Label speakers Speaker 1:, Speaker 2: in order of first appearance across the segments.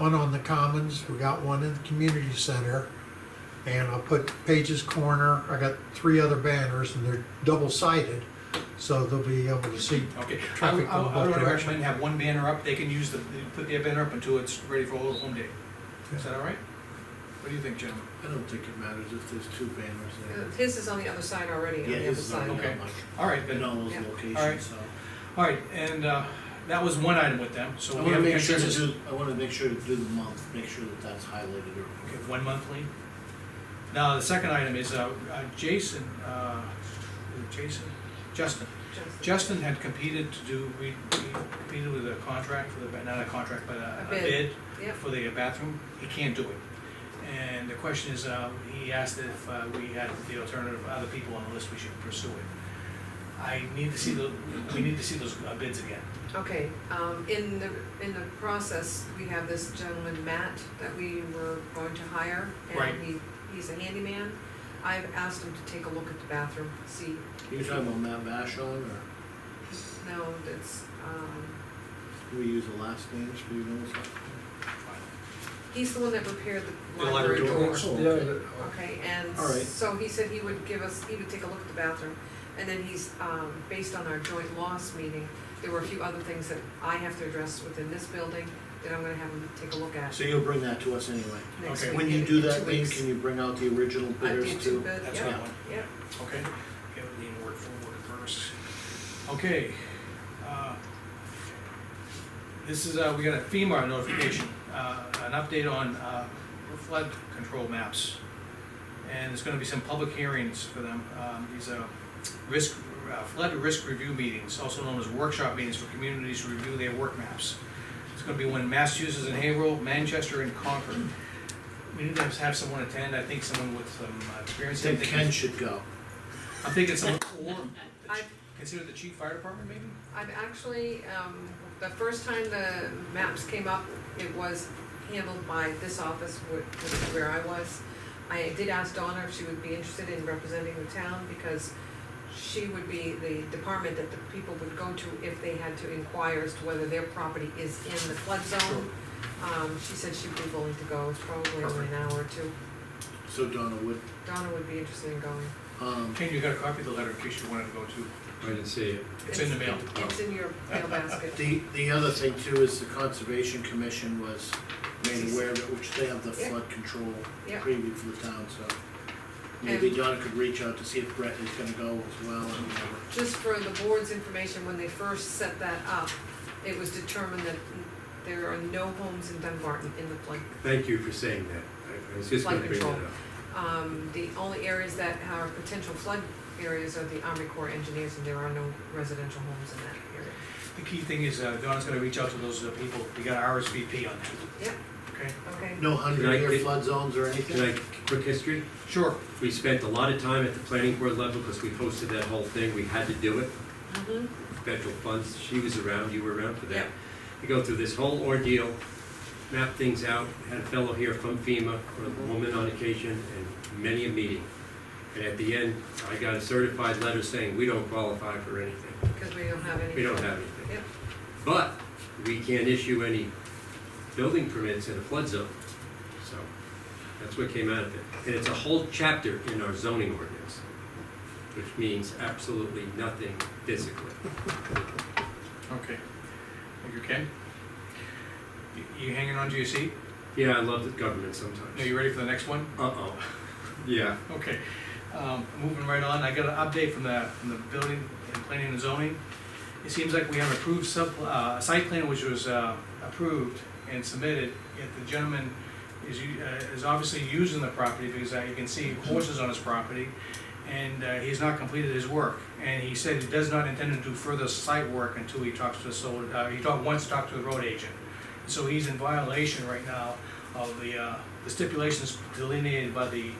Speaker 1: one on the Commons, we got one in the community center. And I'll put Page's Corner, I got three other banners and they're double sided, so they'll be able to see.
Speaker 2: Okay, I would,
Speaker 1: Traffic
Speaker 2: I would- I
Speaker 1: going
Speaker 2: would
Speaker 1: both directions.
Speaker 2: recommend have one banner up, they can use the, they put their banner up until it's ready for Old Home Day. Is that all right? What do you think, gentlemen?
Speaker 3: I don't think it matters if there's two banners there.
Speaker 4: His is on the other side already, on
Speaker 3: Yeah,
Speaker 4: the other
Speaker 3: his is
Speaker 4: side.
Speaker 3: on
Speaker 2: side. Okay.
Speaker 3: that one,
Speaker 2: All right,
Speaker 3: in
Speaker 2: then,
Speaker 3: all those
Speaker 4: Yeah.
Speaker 3: locations,
Speaker 2: Alright.
Speaker 3: so.
Speaker 2: all right, and, uh, that was one item with them, so
Speaker 3: I
Speaker 2: we
Speaker 3: wanna
Speaker 2: have
Speaker 3: make sure to
Speaker 2: interest.
Speaker 3: do, I wanna make sure to do the month, make sure that that's highlighted
Speaker 2: Okay,
Speaker 3: or.
Speaker 2: one monthly. Now, the second item is, uh, uh, Jason, uh, is it Jason, Justin.
Speaker 4: Just-
Speaker 2: Justin had competed to do, we, we competed with a contract for the, ba- not a contract, but a
Speaker 4: A
Speaker 2: a bid
Speaker 4: bid. Yep,
Speaker 2: for the bathroom, he can't do it. And the question is, uh, he asked if uh, we had the alternative, other people on the list, we should pursue it. I need to see the, we need to see those uh, bids again.
Speaker 4: okay, um, in the, in the process, we have this gentleman, Matt, that we were going to hire.
Speaker 2: Right.
Speaker 4: And he, he's a handyman. I've asked him to take a look at the bathroom, see,
Speaker 3: You're talking about Matt Vashon, or
Speaker 4: no, that's, um,
Speaker 3: do we use the last names for you know something?
Speaker 4: he's the one that repaired the
Speaker 2: The
Speaker 4: library
Speaker 2: library
Speaker 4: door.
Speaker 2: doors.
Speaker 4: Okay, and
Speaker 3: All right.
Speaker 4: so he said he would give us, he would take a look at the bathroom, and then he's, um, based on our joint loss meeting, there were a few other things that I have to address within this building that I'm gonna have him take a look at
Speaker 3: So you'll bring that to us anyway.
Speaker 4: next
Speaker 2: Okay.
Speaker 4: week.
Speaker 3: When
Speaker 4: in-
Speaker 3: you do
Speaker 4: in
Speaker 3: that,
Speaker 4: two
Speaker 3: then
Speaker 4: weeks.
Speaker 3: can you bring out the original
Speaker 4: I
Speaker 3: bidders
Speaker 4: did
Speaker 3: too?
Speaker 4: bid,
Speaker 2: That's
Speaker 4: yep,
Speaker 2: what I want.
Speaker 4: yep.
Speaker 2: Okay, give the word for word first. Okay, uh, this is, uh, we got a FEMA notification, uh, an update on, uh, flood control maps. And there's gonna be some public hearings for them, um, these are risk, uh, flood risk review meetings, also known as workshop meetings for communities to review their work maps. It's gonna be one in Massachusetts and Haverhill, Manchester and Concord. We need to have someone attend, I think someone with some uh,
Speaker 3: I
Speaker 2: experience.
Speaker 3: think
Speaker 2: thinking-
Speaker 3: Ken should go.
Speaker 2: I'm thinking some, or,
Speaker 4: I've,
Speaker 2: consider the chief fire department maybe?
Speaker 4: I've actually, um, the first time the maps came up, it was handled by this office, wh- which is where I was. I did ask Donna if she would be interested in representing the town, because she would be the department that the people would go to if they had to inquire as to whether their property is in the flood zone. Um, she said she'd be willing to go, it's probably only an hour or two.
Speaker 3: So Donna would,
Speaker 4: Donna would be interested in going.
Speaker 3: um,
Speaker 2: Ken, you got a copy of the letter in case you wanted to go to,
Speaker 5: I didn't see it.
Speaker 2: it's in the mail.
Speaker 4: It's in your mail basket.
Speaker 3: the, the other thing too is the conservation commission was made aware of it, which they have the
Speaker 4: Yeah.
Speaker 3: flood control
Speaker 4: Yeah.
Speaker 3: preview for the town, so. Maybe
Speaker 4: And-
Speaker 3: Donna could reach out to see if Brett is gonna go as well and whatever.
Speaker 4: just for the board's information, when they first set that up, it was determined that there are no homes in Dunbarton in the flood.
Speaker 5: Thank you for saying that. I- I was just gonna
Speaker 4: Flood
Speaker 5: bring that up.
Speaker 4: control. Um, the only areas that are potential flood areas are the Army Corps engineers, and there are no residential homes in that area.
Speaker 2: The key thing is, uh, Donna's gonna reach out to those uh, people, we got RSVP on that,
Speaker 4: Yep,
Speaker 2: okay?
Speaker 4: okay.
Speaker 3: No
Speaker 5: Can I
Speaker 3: hundred-year
Speaker 5: get-
Speaker 3: flood zones or
Speaker 5: Can I,
Speaker 3: anything?
Speaker 5: quick history?
Speaker 2: Sure,
Speaker 5: We spent a lot of time at the planning board level because we hosted that whole thing. We had to do it.
Speaker 4: Mhm.
Speaker 5: Federal funds, she was around, you were around for that.
Speaker 4: Yep.
Speaker 5: We go through this whole ordeal, map things out, had a fellow here from FEMA, or a woman on occasion, and many a meeting. And at the end, I got a certified letter saying, we don't qualify for anything.
Speaker 4: because we don't have any.
Speaker 5: We don't have anything.
Speaker 4: Yep.
Speaker 5: But we can't issue any building permits in a flood zone. So that's what came out of it. And it's a whole chapter in our zoning ordinance, which means absolutely nothing physically.
Speaker 2: okay. Thank you, Ken. You- You hanging on to your seat?
Speaker 5: Yeah, I love the government
Speaker 2: Are
Speaker 5: sometimes.
Speaker 2: you ready for the next one?
Speaker 5: Uh-oh. Yeah.
Speaker 2: Okay, um, moving right on, I got an update from the, from the building and planning and zoning. It seems like we have approved sub, uh, a site plan which was, uh, approved and submitted, yet the gentleman is, u- uh, is obviously using the property because uh, you can see horses on his property, and, uh, he's not completed his work. And he said he does not intend to do further site work until he talks to the solar, uh, he talked, once talked to the road agent. So he's in violation right now of the, uh, the stipulations delineated by the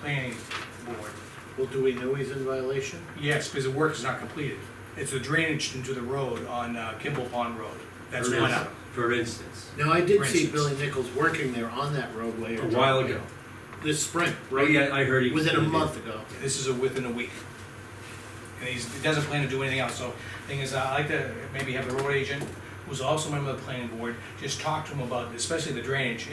Speaker 2: planning board.
Speaker 3: Well, do we know he's in violation?
Speaker 2: Yes, because the work is not completed. It's the drainage into the road on uh, Kimball Pond Road. That's
Speaker 5: For
Speaker 2: one
Speaker 5: ins-
Speaker 2: up.
Speaker 5: For instance,
Speaker 3: Now, I did
Speaker 2: For
Speaker 3: see
Speaker 2: instance.
Speaker 3: Billy Nichols working there on that roadway.
Speaker 5: a
Speaker 3: or-
Speaker 5: while ago.
Speaker 3: This spring,
Speaker 5: Oh,
Speaker 3: right?
Speaker 5: yeah, I heard he was.
Speaker 3: Within a
Speaker 5: gonna do-
Speaker 3: month ago.
Speaker 2: This is a within a week. uh, And he's, he doesn't plan to do anything else, so thing is, i like to maybe have the road agent who's also a member of the planning board, just talk to him about, especially the drainage